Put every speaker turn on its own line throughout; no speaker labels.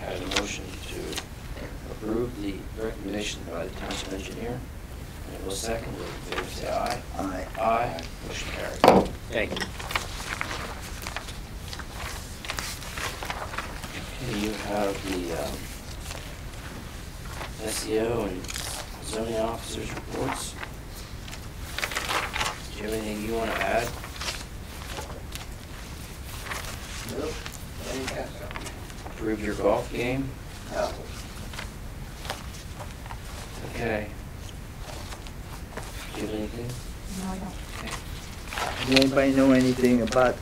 had a motion to approve the recommendation by the township engineer. And it was seconded, all in favor, say aye.
Aye.
Aye, motion carried.
Thank you.
Okay, you have the um, SEO and zoning officers' reports. Do you have anything you want to add?
Nope. I didn't catch that.
Improve your golf game?
No.
Okay. Do you have anything?
No, I don't.
Okay.
Does anybody know anything about,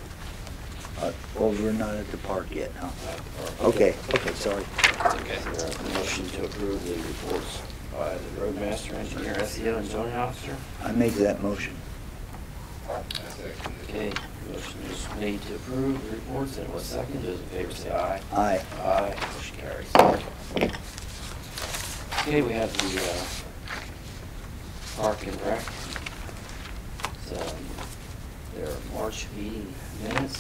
uh, well, we're not at the park yet, huh?
Uh, or-
Okay, okay, sorry.
Okay, there are motion to approve the reports by the roadmaster, engineer, SEO, and zoning officer.
I make that motion.
Okay, motion is made to approve the reports, and it was seconded, those in favor say aye.
Aye.
Aye, motion carries. Okay, we have the uh, Park and Rec. So, Their March meeting minutes.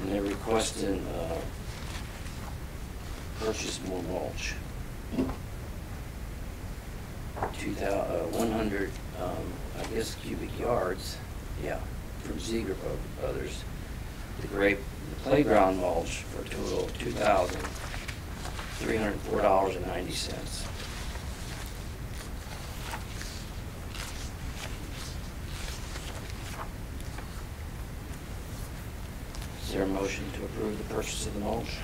And they're requesting uh, purchase more mulch. Two thou, uh, one hundred, um, I guess cubic yards, yeah, from Ziegler Bro- Brothers. The grape, the playground mulch for a total of two thousand, three hundred and four dollars and ninety cents. Is there a motion to approve the purchase of the mulch?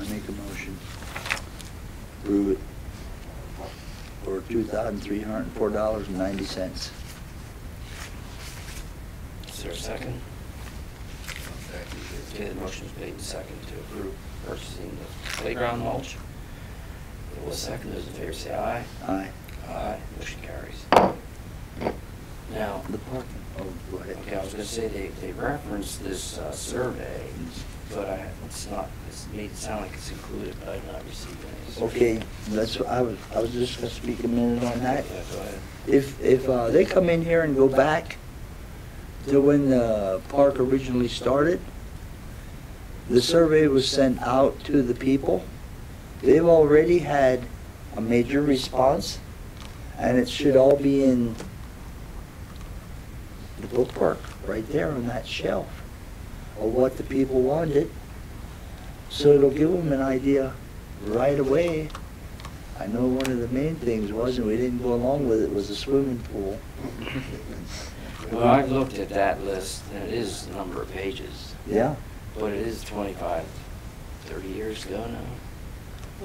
I make a motion. Approve it for two thousand three hundred and four dollars and ninety cents.
Is there a second? Okay, the motion is made and seconded to approve purchasing the playground mulch. It was seconded, those in favor say aye.
Aye.
Aye, motion carries. Now,
The parking, oh, go ahead.
okay, I was gonna say, they, they referenced this uh, survey, but I, it's not, it's made it sound like it's included, but I've not received any. so-
Okay, that's, what I was, I was just gonna speak a minute on
Yeah,
that.
go ahead.
If, if uh, they come in here and go back to when the park originally started, the survey was sent out to the people. They've already had a major response, and it should all be in the bookwork, right there on that shelf, of what the people wanted. So it'll give them an idea right away I know one of the main things was, and we didn't go along with it, was the swimming pool.
Well, I've looked at that list, and it is a number of pages,
Yeah,
but it is twenty-five, thirty years ago now.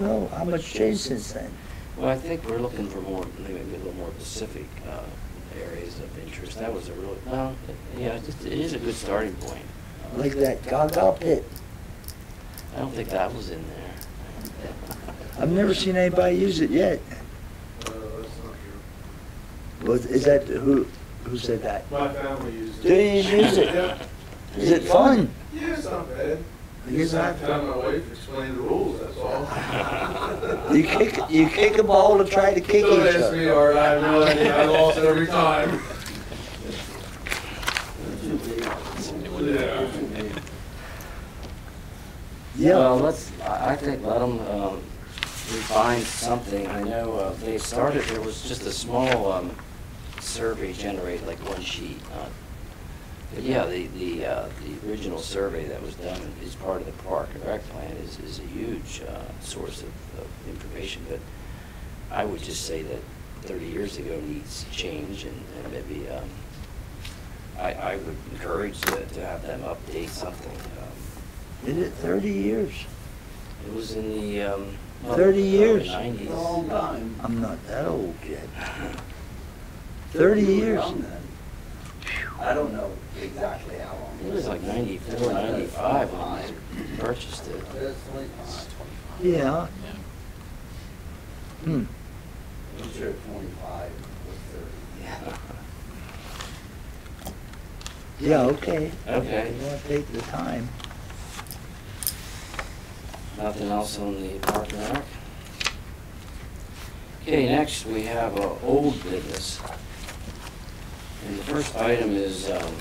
well, how much changed since then?
Well, I think we're looking for more, maybe a little more specific uh, areas of interest. That was a really, well, yeah, it just- it is a good starting point.
Like that Gaga pit.
I don't think that was in there.
I've never seen anybody use it yet. Was, is that, who, who said that?
My family uses it.
They use it.
Yeah,
Is it fun?
Yeah, it's not bad.
I guess I-
Just tell my wife, explain the rules, that's all.
You kick, you kick a ball to try to kick each
Don't ask me,
other.
or I realize I lost every time. Yeah.
Well,
Yeah,
let's, I I think let them refine something. I know uh, they started, there was just a small um, survey generated, like one sheet. uh, But yeah, the, the, uh, the original survey that was done is part of the Park and Rec plan is, is a huge uh, source of, of information. But I would just say that thirty years ago needs change and and maybe, um, I, I would encourage to to have them update something. um,
did it thirty years.
it was in the, um.
30 years.
Nineties.
I'm not that old yet. Thirty years.
I don't know exactly how long.
It was like ninety-four, ninety-five when I purchased it.
Yeah. Hmm.
I'm sure twenty-five or thirty.
Yeah, okay.
Okay.
You want to take the time.
Nothing else on the park and rec? Okay, next we have, uh, old business. And the first item is, um,